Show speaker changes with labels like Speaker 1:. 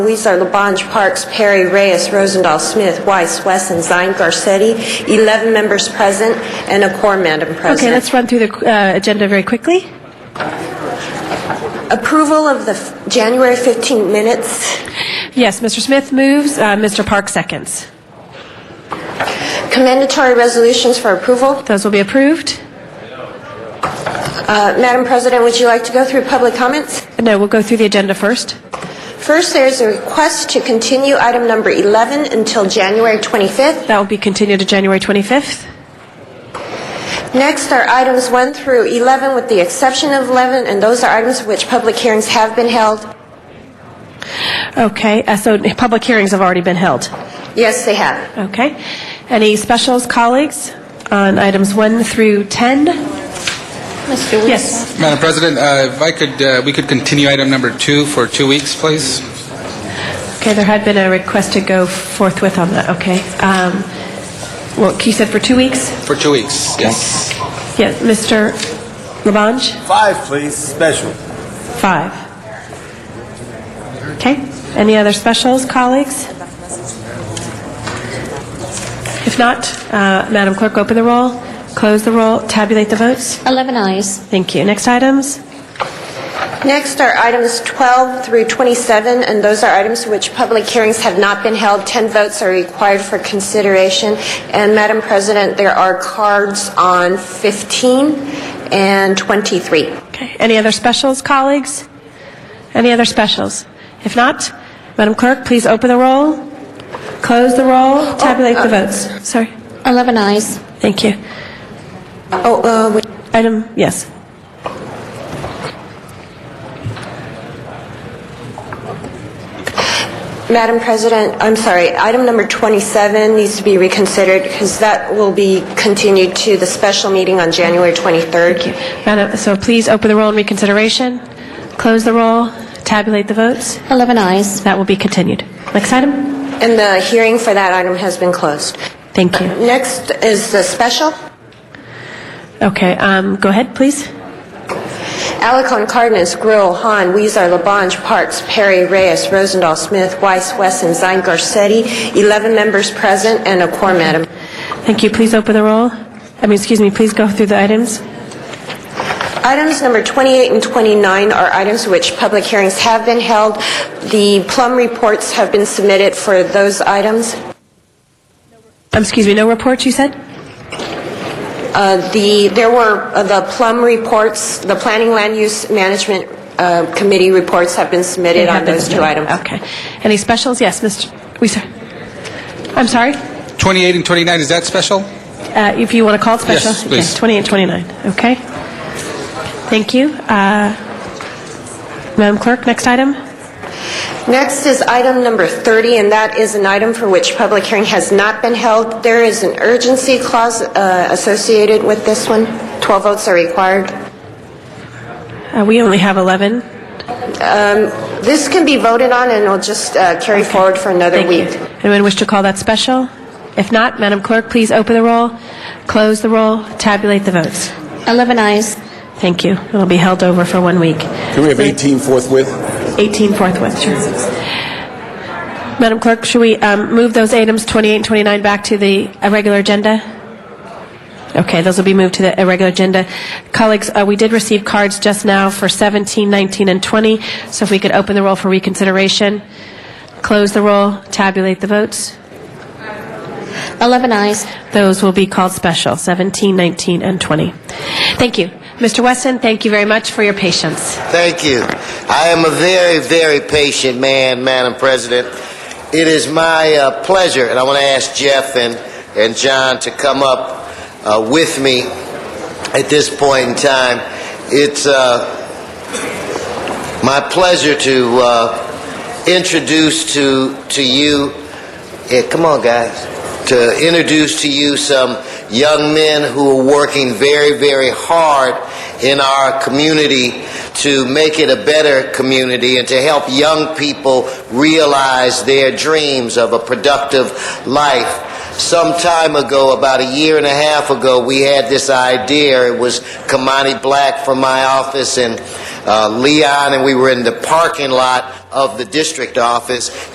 Speaker 1: These are Labange Parks, Perry, Reyes, Rosendahl, Smith, Weiss, Wesson, Zine, Garcetti, 11 members present, and a quorum, Madam
Speaker 2: Okay,
Speaker 1: President.
Speaker 2: let's run through the uh, agenda very quickly.
Speaker 1: Approval of the f- January 15 minutes.
Speaker 2: Yes, Mr. Smith moves, uh, Mr. Park seconds.
Speaker 1: Commendatory resolutions for approval.
Speaker 2: Those will be approved.
Speaker 1: Uh, Madam President, would you like to go through public comments?
Speaker 2: No, we'll go through the agenda first.
Speaker 1: First, there is a request to continue item number 11 until January 25th.
Speaker 2: That will be continued to January 25th.
Speaker 1: Next are items 1 through 11 with the exception of 11, and those are items for which public hearings have been held.
Speaker 2: Okay, uh, so public hearings have already been held.
Speaker 1: Yes, they have.
Speaker 2: Okay. Any specials, colleagues, on items 1 through 10? Mr. Yes.
Speaker 3: Madam President, uh, if I could, uh, we could continue item number two for two weeks, please.
Speaker 2: Okay, there had been a request to go forthwith on that, okay. Um, Well, you said for two weeks?
Speaker 3: For two weeks, yes.
Speaker 2: Yes, Mr. Labange?
Speaker 4: Five, please, special.
Speaker 2: Five. Okay. Any other specials, colleagues? If not, uh, Madam Clerk, open the roll, close the roll, tabulate the votes.
Speaker 5: 11 eyes.
Speaker 2: Thank you. Next items?
Speaker 1: Next are items 12 through 27, and those are items which public hearings have not been held. 10 votes are required for consideration. And Madam President, there are cards on 15 and 23.
Speaker 2: Okay. Any other specials, colleagues? Any other specials? If not, Madam Clerk, please open the roll, close the roll, tabulate the votes. Sorry.
Speaker 5: 11 eyes.
Speaker 2: Thank you.
Speaker 1: Oh, uh, wait.
Speaker 2: Item, yes.
Speaker 1: Madam President, I'm sorry, item number 27 needs to be reconsidered because that will be continued to the special meeting on January 23rd.
Speaker 2: Madam, so please open the roll in reconsideration, close the roll, tabulate the votes.
Speaker 5: 11 eyes.
Speaker 2: That will be continued. Next item?
Speaker 1: And the hearing for that item has been closed.
Speaker 2: Thank you.
Speaker 1: Next is the special.
Speaker 2: Okay, um, go ahead, please.
Speaker 1: Alarcon, Cardenas, Grill, Hahn, Weezer, Labange, Parks, Perry, Reyes, Rosendahl, Smith, Weiss, Wesson, Zine, Garcetti, 11 members present and a quorum, Madam.
Speaker 2: Thank you. Please open the roll. I mean, excuse me, please go through the items.
Speaker 1: Items number 28 and 29 are items which public hearings have been held. The plum reports have been submitted for those items.
Speaker 2: Um, excuse me, no reports, you said?
Speaker 1: Uh, The, there were uh, the plum reports, the Planning Land Use Management uh, Committee reports have been submitted on those two items.
Speaker 2: Okay. Any specials? Yes, Mr. Weiser. I'm sorry?
Speaker 3: 28 and 29, is that special?
Speaker 2: Uh, if you want to call it special?
Speaker 3: Yes, please.
Speaker 2: Okay, 20 and 29. Okay. Thank you. Uh, Madam Clerk, next item? Uh,
Speaker 1: Next is item number 30, and that is an item for which public hearing has not been held. There is an urgency clause uh, associated with this one. 12 votes are required.
Speaker 2: Uh, we only have 11.
Speaker 1: This can be voted on, and it'll just uh, carry forward for another
Speaker 2: Thank you.
Speaker 1: week.
Speaker 2: Anyone wish to call that special? If not, Madam Clerk, please open the roll, close the roll, tabulate the votes.
Speaker 5: 11 eyes.
Speaker 2: Thank you. It'll be held over for one week.
Speaker 4: Can we have 18 forthwith?
Speaker 2: 18 forthwith, sure. Madam Clerk, should we um, move those items 28 and 29 back to the uh, regular agenda? Okay, those will be moved to the uh, regular agenda. Colleagues, uh, we did receive cards just now for 17, 19, and 20, so if we could open the roll for reconsideration, close the roll, tabulate the votes.
Speaker 5: 11 eyes.
Speaker 2: Those will be called special, 17, 19, and 20. Thank you. Mr. Weston, thank you very much for your patience.
Speaker 6: Thank you. I am a very, very patient man, Madam President. It is my uh, pleasure, and I want to ask Jeff and, and John to come up uh, with me at this point in time. It's uh, my pleasure to uh, introduce to, to you, yeah, come on, guys, to introduce to you some young men who are working very, very hard in our community to make it a better community and to help young people realize their dreams of a productive life. Some time ago, about a year and a half ago, we had this idea. It was Kamani Black from my office and uh, Leon, and we were in the parking lot of the district office,